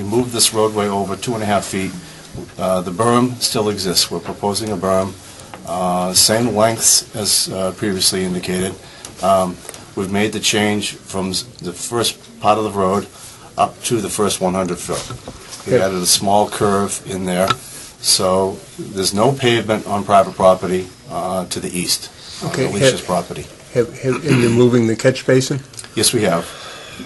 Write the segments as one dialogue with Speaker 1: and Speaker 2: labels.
Speaker 1: moved this roadway over two and a half feet. Uh, The berm still exists. We're proposing a berm, uh, same lengths as uh, previously indicated. Um, We've made the change from s- the first part of the road up to the first 100 foot. We
Speaker 2: Okay.
Speaker 1: added a small curve in there, so there's no pavement on private property uh, to the east, on
Speaker 2: Okay,
Speaker 1: Alicia's
Speaker 2: have-
Speaker 1: property.
Speaker 2: Have, have, and you're moving the catch basin?
Speaker 1: Yes, we have.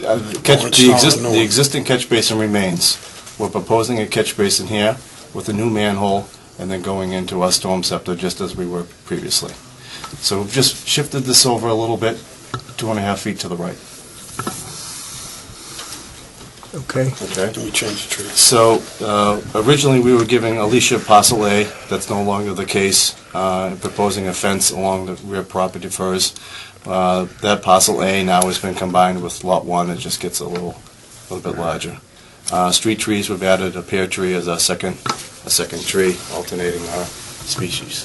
Speaker 1: Uh, the catch-
Speaker 3: it's
Speaker 1: The
Speaker 3: not
Speaker 1: exist-
Speaker 3: new.
Speaker 1: the existing catch basin remains. We're proposing a catch basin here with a new manhole and then going into our storm scepter just as we were previously. So we've just shifted this over a little bit, two and a half feet to the right,
Speaker 2: Okay,
Speaker 1: okay?
Speaker 3: Do we change the trees?
Speaker 1: So uh, originally, we were giving Alicia parcel A, that's no longer the case, uh, proposing a fence along the rear property of hers. Uh, That parcel A now has been combined with Lot 1, it just gets a little, little bit larger. Uh, Street trees, we've added a pear tree as our second, a second tree, alternating our species.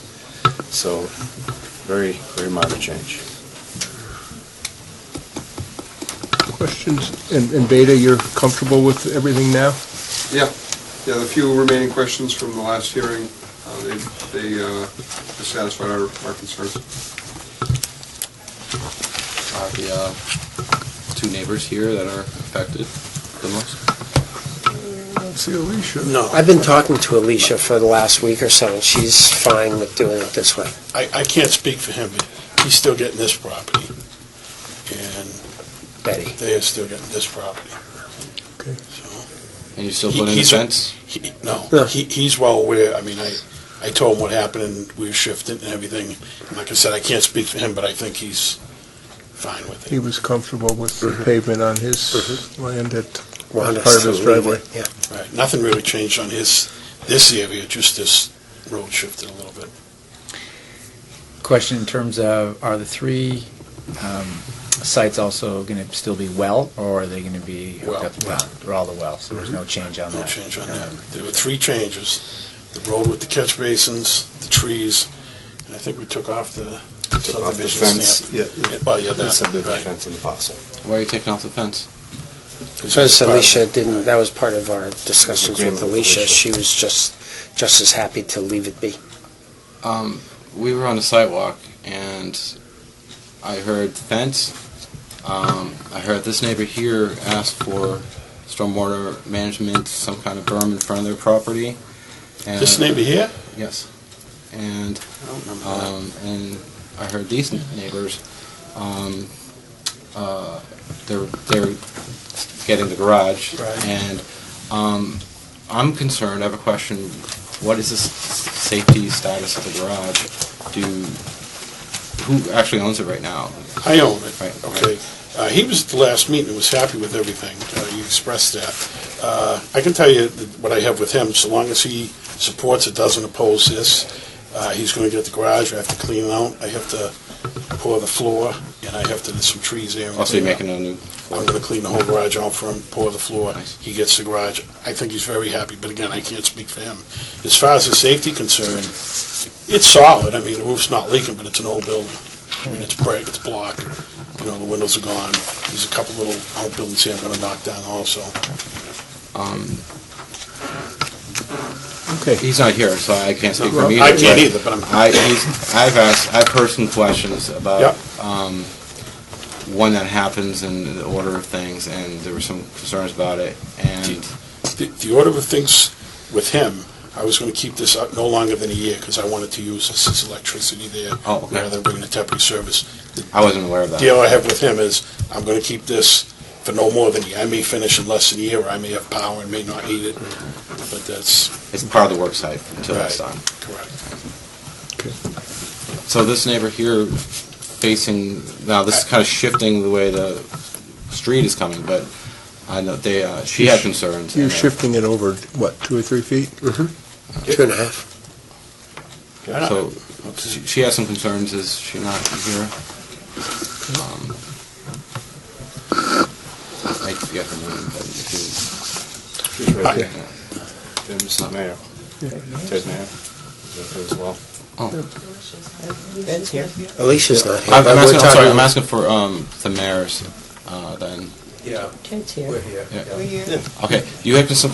Speaker 1: So very, very minor change.
Speaker 2: questions? And, and Beta, you're comfortable with everything now?
Speaker 4: Yeah, yeah, the few remaining questions from the last hearing, uh, they they uh, satisfied our our concerns.
Speaker 5: are the uh, two neighbors here that are affected the most?
Speaker 2: Let's see, Alicia.
Speaker 3: No,
Speaker 6: I've been talking to Alicia for the last week or so, and she's fine with doing it this way.
Speaker 3: I, I can't speak for him. He's still getting this property, and
Speaker 6: Betty,
Speaker 3: they are still getting this property.
Speaker 2: Okay.
Speaker 3: So,
Speaker 5: And you still
Speaker 3: He-
Speaker 5: put in a
Speaker 3: he's a-
Speaker 5: fence?
Speaker 3: he, no,
Speaker 6: Yeah.
Speaker 3: he, he's well aware, I mean, I, I told him what happened, and we were shifting and everything. And Like I said, I can't speak for him, but I think he's fine with
Speaker 2: He
Speaker 3: it.
Speaker 2: was comfortable with the
Speaker 6: Mm-hmm.
Speaker 2: pavement on his land at part
Speaker 6: Want
Speaker 2: of his
Speaker 6: us to leave
Speaker 2: driveway.
Speaker 6: it, Yeah.
Speaker 3: Right, nothing really changed on his, this area, just this road shifted a little bit.
Speaker 7: Question in terms of, are the three um, sites also going to still be well, or are they going to be hooked
Speaker 3: Well. Mm-hmm.
Speaker 7: up? Well. They're all the well, so there's no change on
Speaker 3: No
Speaker 7: that.
Speaker 3: change on that. There were three changes, the road with the catch basins, the trees, and I think we took off the
Speaker 1: Took off the
Speaker 3: subdivision
Speaker 1: fence,
Speaker 3: stamp.
Speaker 1: yeah,
Speaker 3: Oh, yeah,
Speaker 1: the
Speaker 3: that,
Speaker 1: subdivision
Speaker 3: right.
Speaker 1: fence and the parcel.
Speaker 5: Why are you taking off the fence?
Speaker 6: Because Alicia didn't, that was part of our discussions
Speaker 1: Agreement
Speaker 6: with
Speaker 1: with
Speaker 6: Alicia.
Speaker 1: Alicia.
Speaker 6: She was just, just as happy to leave it be.
Speaker 5: Um, we were on a sidewalk and I heard fence. Um, I heard this neighbor here ask for stormwater management, some kind of berm in front of their property. And-
Speaker 3: This neighbor here?
Speaker 5: Yes. And
Speaker 3: I don't remember that.
Speaker 5: Um, and I heard these neighbors, um, uh, they're, they're getting the garage.
Speaker 3: Right.
Speaker 5: And, um, I'm concerned, I have a question, what is the s- safety status of the garage? Do, who actually owns it right now?
Speaker 3: I own it,
Speaker 5: Right,
Speaker 3: okay? Uh, He was at the last meeting, and was happy with everything. Uh, You expressed that. Uh, I can tell you th- what I have with him, so long as he supports it, doesn't oppose this. uh, He's going to get the garage, I have to clean it out, I have to pour the floor, and I have to, there's some trees there. and
Speaker 5: Also, you're
Speaker 3: clean it out.
Speaker 5: making a new,
Speaker 3: I'm going to clean the whole garage out for him, pour the floor.
Speaker 5: Nice.
Speaker 3: He gets the garage. I think he's very happy, but again, I can't speak for him. As far as the safety concern, it's solid. I mean, the roof's not leaking, but it's an old building. I mean, it's brick, it's block. You know, the windows are gone. There's a couple little outbuildings here I'm going to knock down also.
Speaker 5: um,
Speaker 2: Okay,
Speaker 5: he's not here, so I can't speak for
Speaker 2: Well,
Speaker 5: him either.
Speaker 3: I can't
Speaker 5: but-
Speaker 3: either, but I'm,
Speaker 5: I, he's, I've asked, I've heard some questions about, um, when that happens and the order of things, and there were some concerns about it, and,
Speaker 3: the- the order of things with him, I was going to keep this up no longer than a year because I wanted to use this as electricity there
Speaker 5: oh,
Speaker 3: rather
Speaker 5: okay,
Speaker 3: than bringing a temporary service.
Speaker 5: I wasn't aware of that.
Speaker 3: deal I have with him is, I'm gonna keep this for no more than a year. I may finish in less than a year, or I may have power and may not need it, but that's
Speaker 5: It's part of the work site until that's
Speaker 3: Right.
Speaker 5: done.
Speaker 3: correct.
Speaker 5: So this neighbor here facing, now this is kind of shifting the way the street is coming, but I know they, uh, she had concerns.
Speaker 2: you're
Speaker 5: and, uh,
Speaker 2: shifting it over, what, two or three feet?
Speaker 6: Mm-hmm. Two and a half.
Speaker 5: So she she has some concerns, is she not here? Um, I forget her name, but if you...
Speaker 1: She's right there.
Speaker 5: Yeah.
Speaker 1: And Mrs. Mayor, Ted Mayor, is there as well.
Speaker 8: Ben's here.
Speaker 6: Alicia's not here.
Speaker 5: I'm
Speaker 6: but
Speaker 5: I'm
Speaker 6: we're
Speaker 5: asking, I'm sorry,
Speaker 6: talking-
Speaker 5: I'm asking for um, the mayor's, uh, then.
Speaker 8: Ted's here.
Speaker 5: Yeah.
Speaker 8: We're here.
Speaker 5: Okay, you have some